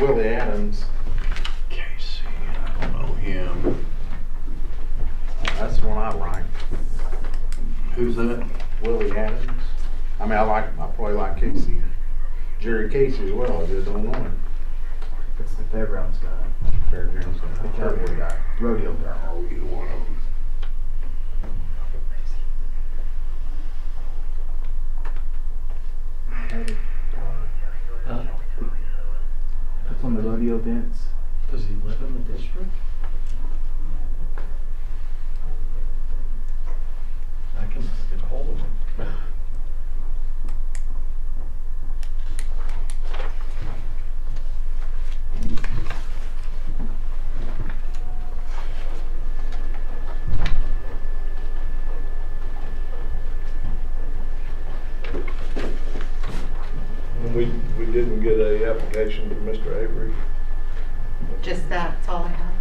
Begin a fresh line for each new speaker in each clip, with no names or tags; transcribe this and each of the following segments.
Willie Adams,
Casey, I don't know him.
that's the one I like,
Who's that?
Willie Adams. I mean, I like, I probably like Casey, Jerry Casey as well, I just don't know him.
It's the fairgrounds guy,
Fairgrounds guy, Fairgrounds guy.
rodeo guy.
Are you one of them?
Uh,
That's on the rodeo events.
Does he live in the district? I can get hold of him.
We, we didn't get a application from Mr. Avery.
Just that, that's all I have.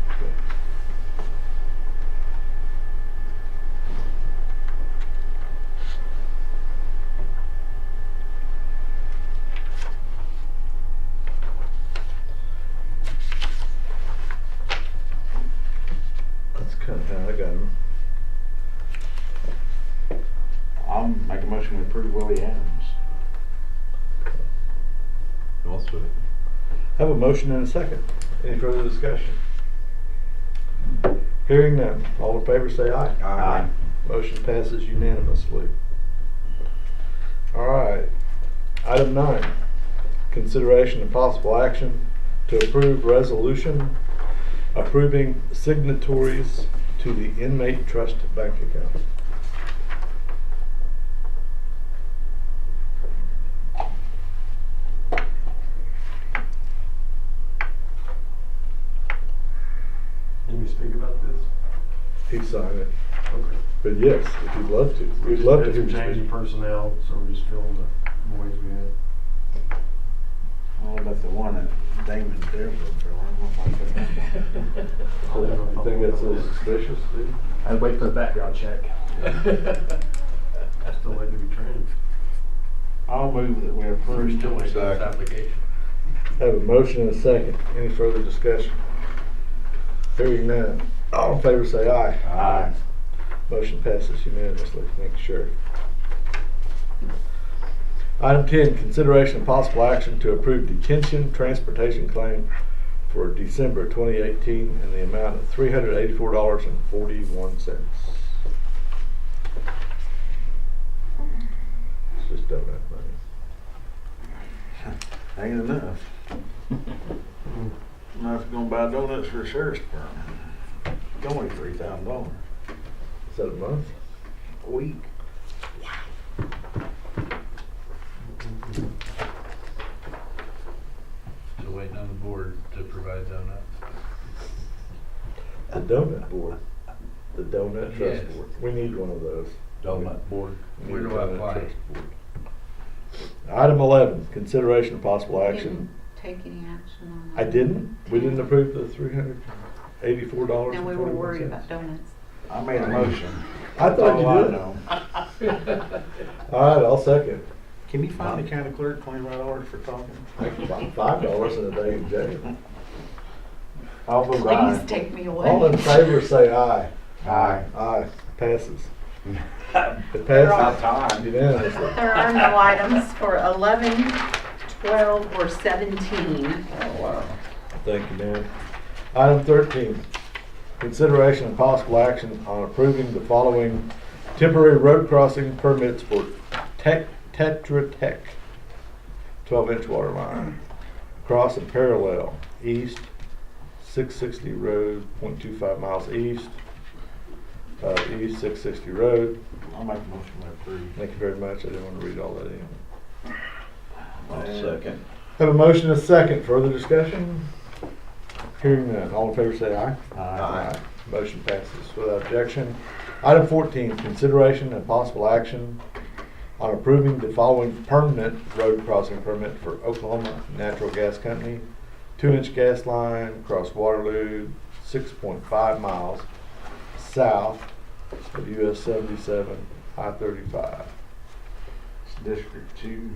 That's kind of how I got him.
I'll make a motion to approve Willie Adams.
Have a motion and a second. Any further discussion? Hearing none. All in favor say aye.
Aye.
Motion passes unanimously. All right. Item nine, consideration and possible action to approve resolution approving signatories to the inmate trust bank account.
Did we speak about this?
He signed it.
Okay.
But yes, if you'd love to, we'd
Just
love to
had
hear
some
you
change in
speak.
personnel, so we're just filling the voids we had.
All about the one at Damon Denver, Bill, I don't know if I could.
You think that's a little suspicious, dude?
I'd wait for the background check.
Still had to be trained.
I'll move that we approve.
Second.
application.
Have a motion and a second. Any further discussion? Hearing none. All in favor say aye.
Aye.
Motion passes unanimously. Thank you, Sheriff. Item ten, consideration and possible action to approve detention transportation claim for December twenty eighteen in the amount of three hundred eighty-four dollars and forty-one cents. It's just donut money.
Ain't enough. Enough to go and buy donuts for the sheriff's department. It's only three thousand dollars
Is that a month?
a week.
So waiting on the board to provide donuts.
The donut board. The donut trust
Yes.
board. We need one of those.
Donut board.
We
Where
need
do
a
I
donut
apply?
trust board. Item eleven, consideration of possible
You
action.
didn't take any action on
I
that.
didn't, we didn't approve the three hundred eighty-four dollars
No,
and
we were worried
forty-one
about
cents.
donuts.
I made a motion.
I thought
All Oh, I
you did.
know.
All right, I'll second.
Can you find the county clerk twenty-five dollars for talking?
I can buy Five dollars in a day in jail.
I'll vote
Please
aye.
take me away.
All in favor, say aye.
Aye.
Aye, passes. It
About
passes
time.
unanimously.
There are no items for 11, 12, or 17.
Oh, Thank you, Dan. Item thirteen, consideration and possible action on approving the following temporary road crossing permits for Tech, Tetra Tech, twelve-inch water line, across and parallel, east, six sixty road, point two five miles east, uh, east six sixty road.
I'll make a motion to approve.
Thank you very much, I didn't want to read all that in.
Second.
Have a motion and a second, further discussion? Hearing none, all in favor say aye.
Aye.
Motion passes without objection. Item fourteen, consideration and possible action on approving the following permanent road crossing permit for Oklahoma Natural Gas Company. Two-inch gas line across Waterloo, six point five miles south of US seventy-seven, I thirty-five.
It's District two.